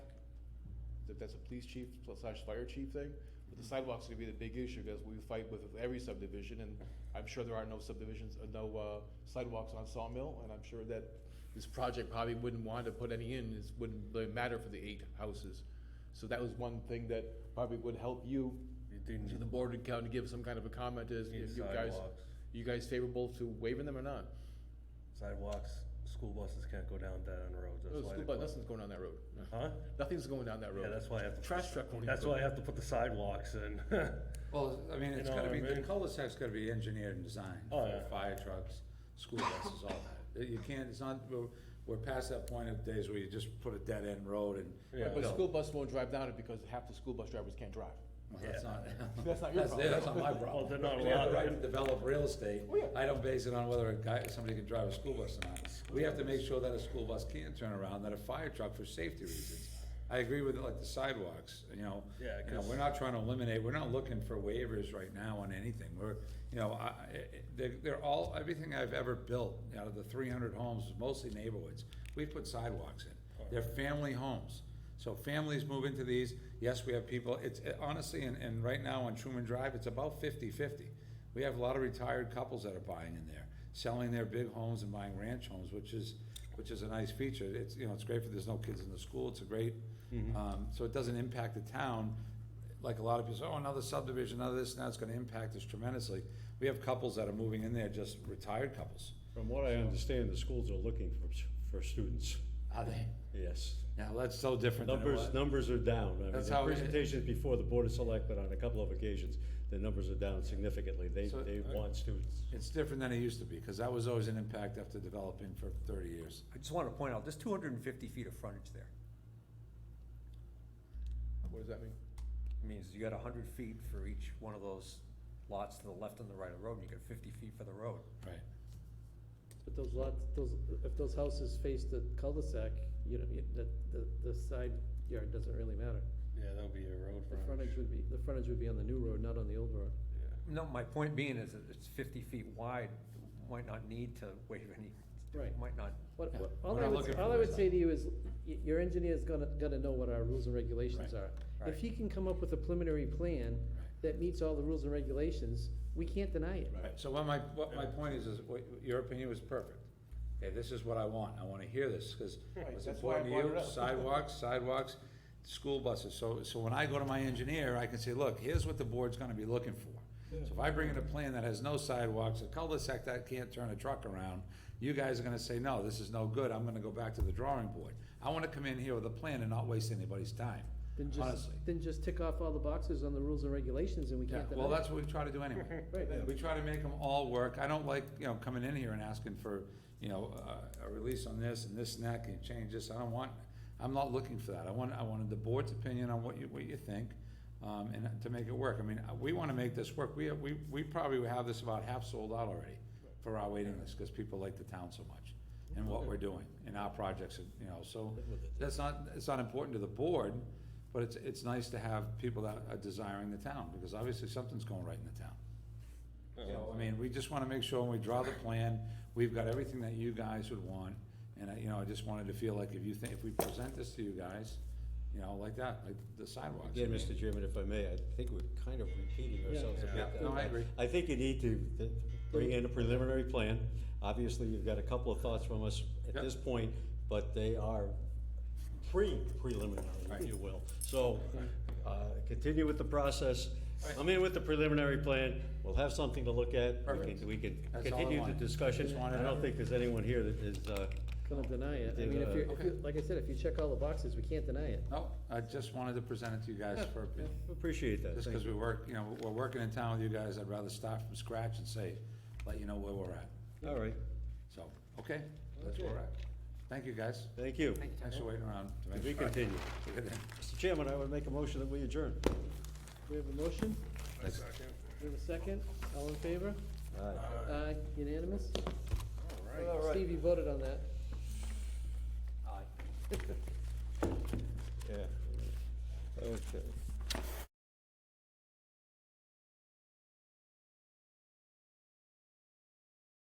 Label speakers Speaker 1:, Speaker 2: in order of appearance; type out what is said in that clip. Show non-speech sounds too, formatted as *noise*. Speaker 1: if that's a police chief slash fire chief thing, but
Speaker 2: Mm-hmm.
Speaker 1: the sidewalks are gonna be the big issue, because we fight with every subdivision, and I'm sure there are no subdivisions, uh, no, uh, sidewalks on Sawmill, and I'm sure that this project probably wouldn't want to put any in, this wouldn't really matter for the eight houses. So that was one thing that probably would help you, to the board and kind of give some kind of a comment is,
Speaker 2: Need
Speaker 1: if you guys,
Speaker 2: Mm-hmm. sidewalks.
Speaker 1: you guys favorable to waiving them or not?
Speaker 2: Sidewalks, school buses can't go down that on roads,
Speaker 1: No,
Speaker 3: Oh,
Speaker 2: that's
Speaker 1: school
Speaker 2: why. they
Speaker 1: bus-
Speaker 2: put-
Speaker 1: nothing's going down that road. No.
Speaker 2: Huh?
Speaker 1: Nothing's going down that road.
Speaker 2: Yeah, that's why I have to. put
Speaker 1: Trash
Speaker 2: the-
Speaker 1: truck won't even
Speaker 2: That's
Speaker 1: go
Speaker 2: why I
Speaker 1: down.
Speaker 2: have to put the sidewalks in. *laughs*
Speaker 4: Well, I mean, it's
Speaker 2: You know
Speaker 4: gotta
Speaker 2: what I
Speaker 4: be, the
Speaker 2: mean?
Speaker 4: cul-de-sac's gotta be engineered and designed
Speaker 2: Oh,
Speaker 4: for
Speaker 2: yeah.
Speaker 4: fire trucks, school buses, all that. Uh, You can't, it's not, we're, we're past that point of days where you just put a dead-end road and.
Speaker 2: Yeah.
Speaker 1: But
Speaker 4: No,
Speaker 1: school bus won't drive down it because half the school bus drivers can't drive.
Speaker 4: well, That's not. *laughs*
Speaker 1: That's not your
Speaker 4: their- That's not
Speaker 1: problem.
Speaker 4: my
Speaker 2: Well,
Speaker 4: problem.
Speaker 2: they're not
Speaker 4: *laughs* They have the
Speaker 2: allowed.
Speaker 4: right to develop real estate.
Speaker 1: Oh, yeah.
Speaker 4: I don't base it on whether a guy, somebody can drive a school bus or not. We have to make sure that a school bus can turn around, that a fire truck for safety reasons. I agree with like the sidewalks, you know.
Speaker 2: Yeah,
Speaker 4: You know,
Speaker 2: 'cause-
Speaker 4: we're not trying to eliminate, we're not looking for waivers right now on anything. We're, you know, I, I- they're, they're all, everything I've ever built out of the three hundred homes, is mostly neighborhoods, we put sidewalks in. They're family homes. So families move into these. Yes, we have people, it's it- honestly, and, and right now on Truman Drive, it's about 50-50. We have a lot of retired couples that are buying in there, selling their big homes and buying ranch homes, which is, which is a nice feature. It's, you know, it's great for, there's no kids in the school, it's a great, um, so it doesn't impact the town. Like a lot of people say, oh, another subdivision, another this, and that's gonna impact us tremendously. We have couples that are moving in there, just retired couples.
Speaker 5: From what I understand, the schools are looking for, for students,
Speaker 4: Are they?
Speaker 5: yes.
Speaker 4: Yeah, well, that's so different than it
Speaker 5: Numbers,
Speaker 4: was.
Speaker 5: numbers are down. I mean,
Speaker 4: That's
Speaker 5: the
Speaker 4: how it-
Speaker 5: presentations before the Board of Selectmen on a couple of occasions, the numbers are down significantly. They,
Speaker 4: So-
Speaker 5: they want students.
Speaker 4: It's different than it used to be, because that was always an impact after developing for thirty years.
Speaker 3: I just want to point out, there's two hundred and fifty feet of frontage there.
Speaker 1: What does that mean?
Speaker 3: It means you got hundred feet for each one of those lots to the left and the right of the road, and you got fifty feet for the road.
Speaker 4: Right.
Speaker 6: But those lots, those, if those houses face the cul-de-sac, you know, you- the, the, the side yard doesn't really matter.
Speaker 2: Yeah, that'll be a road
Speaker 6: The
Speaker 2: frontage.
Speaker 6: frontage would be, the frontage would be on the new road, not on the old road.
Speaker 2: Yeah.
Speaker 3: No, my point being is that it's fifty feet wide, might not need to waive any,
Speaker 6: Right.
Speaker 3: might not.
Speaker 6: What,
Speaker 4: Yeah,
Speaker 6: what,
Speaker 4: we're
Speaker 6: all I
Speaker 4: not
Speaker 6: would,
Speaker 4: looking for
Speaker 6: all I would
Speaker 4: those.
Speaker 6: say to you is, y- your engineer's gonna, gonna know what our rules and regulations are.
Speaker 3: Right.
Speaker 6: If he can come up with a preliminary plan that meets all the rules and regulations, we can't deny it.
Speaker 4: Right, so what my, what my point is, is what- your opinion was perfect. Okay, this is what I want, I wanna hear this, cause it's
Speaker 1: that's why I
Speaker 4: important to
Speaker 1: brought it
Speaker 4: you,
Speaker 1: up. *laughs*
Speaker 4: sidewalks, sidewalks, school buses, so, so when I go to my engineer, I can say, look, here's what the board's gonna be looking for. So if I bring in a plan that has no sidewalks, a cul-de-sac that can't turn a truck around, you guys are gonna say, no, this is no good, I'm gonna go back to the drawing board. I wanna come in here with a plan and not waste anybody's time,
Speaker 6: Then just,
Speaker 4: honestly.
Speaker 6: then just tick off all the boxes on the rules and regulations and we
Speaker 4: Yeah,
Speaker 6: can't deny it.
Speaker 4: well, that's what we try to
Speaker 1: *laughs*
Speaker 4: do anyway.
Speaker 6: Right.
Speaker 4: We try to make them all work. I don't like, you know, coming in here and asking for, you know, a, a release on this and this and that, can you change this? I don't want, I'm not looking for that. I want, I wanted the board's opinion on what you, what you think, um, and to make it work. I mean, uh, we wanna make this work. We, we, we probably have this about half sold out already for our waiting list, cause people like the town so much and what we're doing and our projects, and, you know, so that's not, it's not important to the board, but it's, it's nice to have people that are desiring the town, because obviously something's going right in the town. So, I mean, we just wanna make sure when we draw the plan, we've got everything that you guys would want, and I, you know, I just wanted to feel like if you think, if we present this to you guys, you know, like that, like the sidewalks. I
Speaker 5: Again,
Speaker 4: mean,
Speaker 5: Mr. Chairman, if I may, I think we're kind of repeating ourselves a
Speaker 4: Yeah.
Speaker 5: bit.
Speaker 4: Yeah.
Speaker 5: Uh,
Speaker 4: No, I agree.
Speaker 5: I think you need to th- bring in a preliminary plan. Obviously, you've got a couple of thoughts from us at
Speaker 4: Yep.
Speaker 5: this point, but they are pre-preliminary, if you will. So, uh, continue with the process. I'm in with the preliminary plan. We'll have something to look at. We
Speaker 4: Perfect.
Speaker 5: can- We can
Speaker 4: That's all I
Speaker 5: continue the
Speaker 4: wanted.
Speaker 5: discussion.
Speaker 4: Just wanted
Speaker 5: I don't
Speaker 4: to-
Speaker 5: think there's anyone here that is, uh,
Speaker 6: Gonna deny it. I
Speaker 5: Did,
Speaker 6: mean, if
Speaker 5: uh,
Speaker 6: you're, if you, like I said, if you check all the boxes, we can't deny it.
Speaker 4: No, I just wanted to present it to you guys for,
Speaker 5: appreciate that.
Speaker 4: just
Speaker 5: Thank
Speaker 4: because we work, you know, we're working in town with you guys, I'd rather start from scratch and say, let you know where we're at.
Speaker 5: you. All right,
Speaker 4: So, okay, that's where we're at. Thank you, guys.
Speaker 5: thank you.
Speaker 4: Thanks for waiting around. to make
Speaker 5: We
Speaker 4: sure.
Speaker 5: continue. Mr. Chairman, I would make a motion that we adjourn.
Speaker 6: We have a motion? We have a second? All in favor? Aye, unanimous? Steve, you voted on that.
Speaker 5: Yeah. Okay.